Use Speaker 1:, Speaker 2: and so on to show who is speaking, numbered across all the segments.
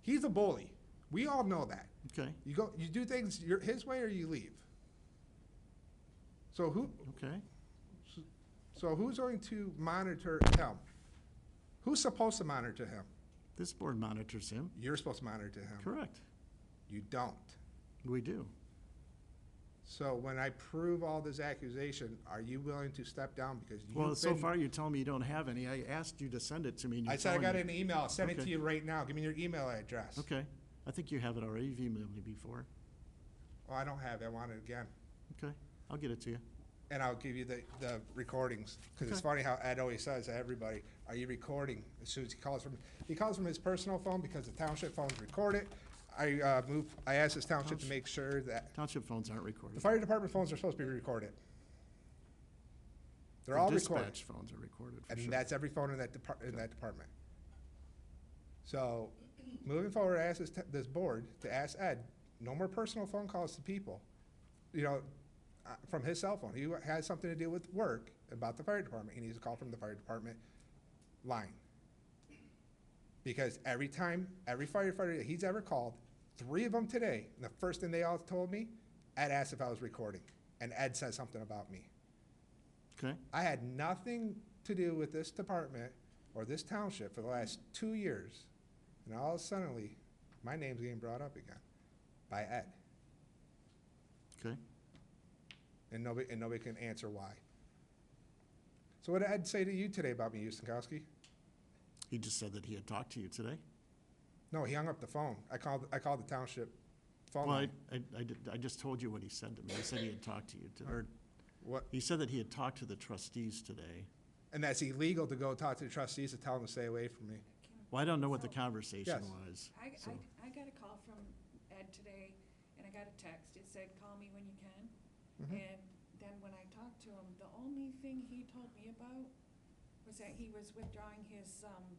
Speaker 1: He's a bully. We all know that.
Speaker 2: Okay,
Speaker 1: You go, you do things your, his way or you leave. So who,
Speaker 2: okay.
Speaker 1: so who's going to monitor him? Who's supposed to monitor him?
Speaker 2: This board monitors him.
Speaker 1: You're supposed to monitor him.
Speaker 2: Correct.
Speaker 1: You don't.
Speaker 2: We do.
Speaker 1: So when I prove all this accusation, are you willing to step down because you've
Speaker 2: Well, so
Speaker 1: been-
Speaker 2: far you're telling me you don't have any. I asked you to send it to me and
Speaker 1: I
Speaker 2: you're
Speaker 1: said I
Speaker 2: telling me.
Speaker 1: got an e-. email. I'll send it to
Speaker 2: Okay.
Speaker 1: you right now. Give me your email address.
Speaker 2: Okay. I think you have it already. You've emailed me before.
Speaker 1: Oh, I don't have it. I want it again.
Speaker 2: Okay, I'll get it to you.
Speaker 1: And I'll give you the, the recordings, because it's
Speaker 2: Okay.
Speaker 1: funny how Ed always says to everybody, are you recording? As soon as he calls from, he calls from his personal phone because the township phones record it. I, uh, move, I asked this township to
Speaker 2: Township.
Speaker 1: make sure that,
Speaker 2: Township phones aren't
Speaker 1: the
Speaker 2: recorded.
Speaker 1: fire department phones are supposed to be recorded. They're all
Speaker 2: The
Speaker 1: recorded.
Speaker 2: Dispatch phones are recorded, for
Speaker 1: And
Speaker 2: sure.
Speaker 1: that's every phone in that depart, in that department. So, moving forward, I ask this, t- this board to ask Ed, no more personal phone calls to people, you know, uh, from his cell phone. He has something to do with work about the fire department. He needs a call from the fire department line. Because every time, every firefighter that he's ever called, three of them today, and the first thing they all told me, Ed asked if I was recording, and Ed said something about me.
Speaker 2: Okay,
Speaker 1: I had nothing to do with this department or this township for the last two years, and all of a suddenly, my name's getting brought up again by Ed,
Speaker 2: okay.
Speaker 1: and nobody, and nobody can answer why. So what did Ed say to you today about me, Ustinkowski?
Speaker 2: He just said that he had talked to you today.
Speaker 1: No, he hung up the phone. I called, I called the township phone
Speaker 2: Well, I,
Speaker 1: line.
Speaker 2: I, I did- I just told you what he said to me. He said he had talked to you, to- or,
Speaker 1: What,
Speaker 2: he said that he had talked to the trustees today.
Speaker 1: and that's illegal to go talk to the trustees to tell them to stay away from me.
Speaker 2: Well, I don't know what the
Speaker 3: So-
Speaker 2: conversation
Speaker 1: Yes.
Speaker 2: was.
Speaker 3: I,
Speaker 2: so-
Speaker 3: I, I got a call from Ed today, and I got a text, it said, call me when you can.
Speaker 1: Mm-hmm.
Speaker 3: And then when I talked to him, the only thing he told me about was that he was withdrawing his, um,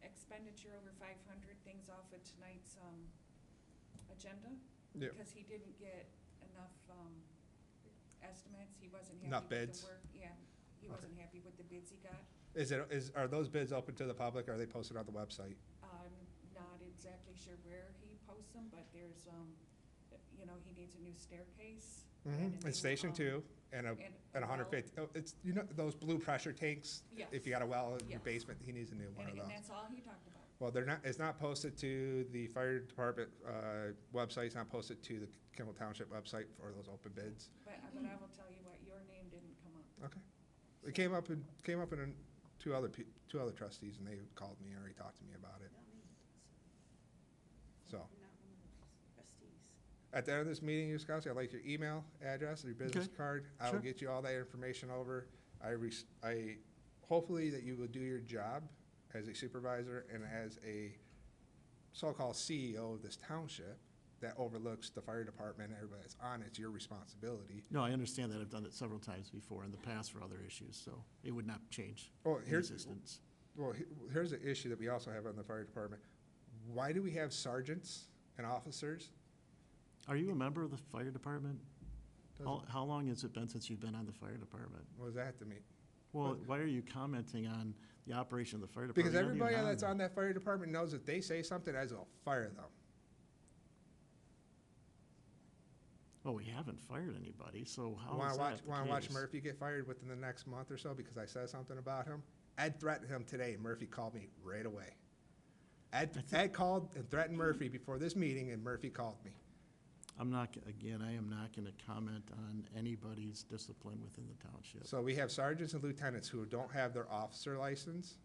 Speaker 3: expenditure over five hundred things off of tonight's, um, agenda.
Speaker 1: Yeah.
Speaker 3: Because he didn't get enough, um, estimates, he wasn't happy
Speaker 1: Enough
Speaker 3: with the
Speaker 1: bids?
Speaker 3: work. Yeah, he
Speaker 1: Okay.
Speaker 3: wasn't happy with the bids he got.
Speaker 1: Is it, is, are those bids open to the public? Are they posted on the website?
Speaker 3: I'm not exactly sure where he posts them, but there's, um, you know, he needs a new staircase. a
Speaker 1: Mm-hmm,
Speaker 3: new,
Speaker 1: and station
Speaker 3: um,
Speaker 1: two, and a,
Speaker 3: and a
Speaker 1: and a hundred
Speaker 3: well.
Speaker 1: fifty, oh, it's, you know, those blue pressure tanks?
Speaker 3: Yes.
Speaker 1: If you got a well in your
Speaker 3: Yes.
Speaker 1: basement, he needs a new one of
Speaker 3: And, and
Speaker 1: those.
Speaker 3: that's all he talked about.
Speaker 1: Well, they're not, it's not posted to the fire department, uh, website, it's not posted to the Kimball Township website for those open bids.
Speaker 3: But, but I will tell you what, your name didn't come up.
Speaker 1: Okay. It came up in, came up in an- two other, pe- two other trustees, and they called me, and already talked to me about it,
Speaker 4: Not me. So,
Speaker 1: so.
Speaker 4: I'm not one of those trustees.
Speaker 1: At the end of this meeting, Ms. Kowski, I'd like your email address, your business
Speaker 2: Okay.
Speaker 1: card. I will
Speaker 2: Sure.
Speaker 1: get you all that information over. I, res- I, hopefully that you will do your job as a supervisor and as a so-called CEO of this township that overlooks the fire department, everybody that's on, it. it's your responsibility.
Speaker 2: No, I understand that. I've done it several times before in the past for other issues, so it would not change
Speaker 1: Well,
Speaker 2: in
Speaker 1: here's-
Speaker 2: existence.
Speaker 1: Well, he- here's the issue that we also have on the fire department. Why do we have sergeants and officers?
Speaker 2: Are you a member of the fire department? How,
Speaker 1: Doesn't-
Speaker 2: how long has it been since you've been on the fire department?
Speaker 1: What does that have to mean?
Speaker 2: Well, why are you commenting on the operation of the fire department?
Speaker 1: Because
Speaker 2: You're not even
Speaker 1: everybody that's
Speaker 2: there.
Speaker 1: on that fire department knows if they say something, I will fire them.
Speaker 2: Well, we haven't fired anybody, so how
Speaker 1: Want
Speaker 2: Oh, is
Speaker 1: to watch,
Speaker 2: that the
Speaker 1: want to watch
Speaker 2: case?
Speaker 1: Murphy get fired within the next month or so because I said something about him? Ed threatened him today. and Murphy called me right away. Ed, Ed called and threatened Murphy before this meeting and Murphy called me.
Speaker 2: I'm not, g- again, I am not gonna comment on anybody's discipline within the township.
Speaker 1: So we have sergeants and lieutenants who don't have their officer license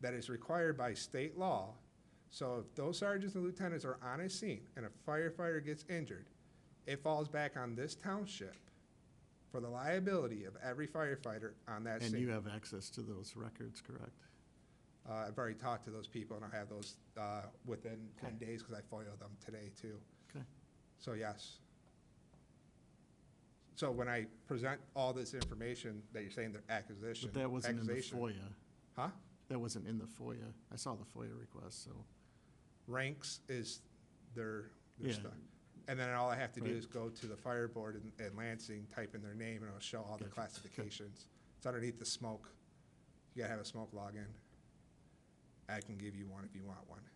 Speaker 1: that is required by state law. So if those sergeants and lieutenants are on a scene and a firefighter gets injured, it falls back on this township for the liability of every firefighter on that
Speaker 2: And
Speaker 1: scene.
Speaker 2: you have access to those records, correct?
Speaker 1: Uh, I've already talked to those people, and I have those uh, within 10
Speaker 2: Okay.
Speaker 1: days, because I FOIA'd them today, too.
Speaker 2: Okay,
Speaker 1: So, yes. So when I present all this information that you're saying they're accusation.
Speaker 2: but that wasn't in the
Speaker 1: accusation-
Speaker 2: FOIA.
Speaker 1: Huh?
Speaker 2: That wasn't in the FOIA. I saw the FOIA request, so,
Speaker 1: Ranks is their, their
Speaker 2: Yeah.
Speaker 1: stuff. And then all I have to do
Speaker 2: Right.
Speaker 1: is go to the fire board in- in Lansing, type in their name, and it'll show all the
Speaker 2: Gotcha. Okay.
Speaker 1: classifications. It's underneath the smoke. You gotta have a smoke login. I can give you one if you want one.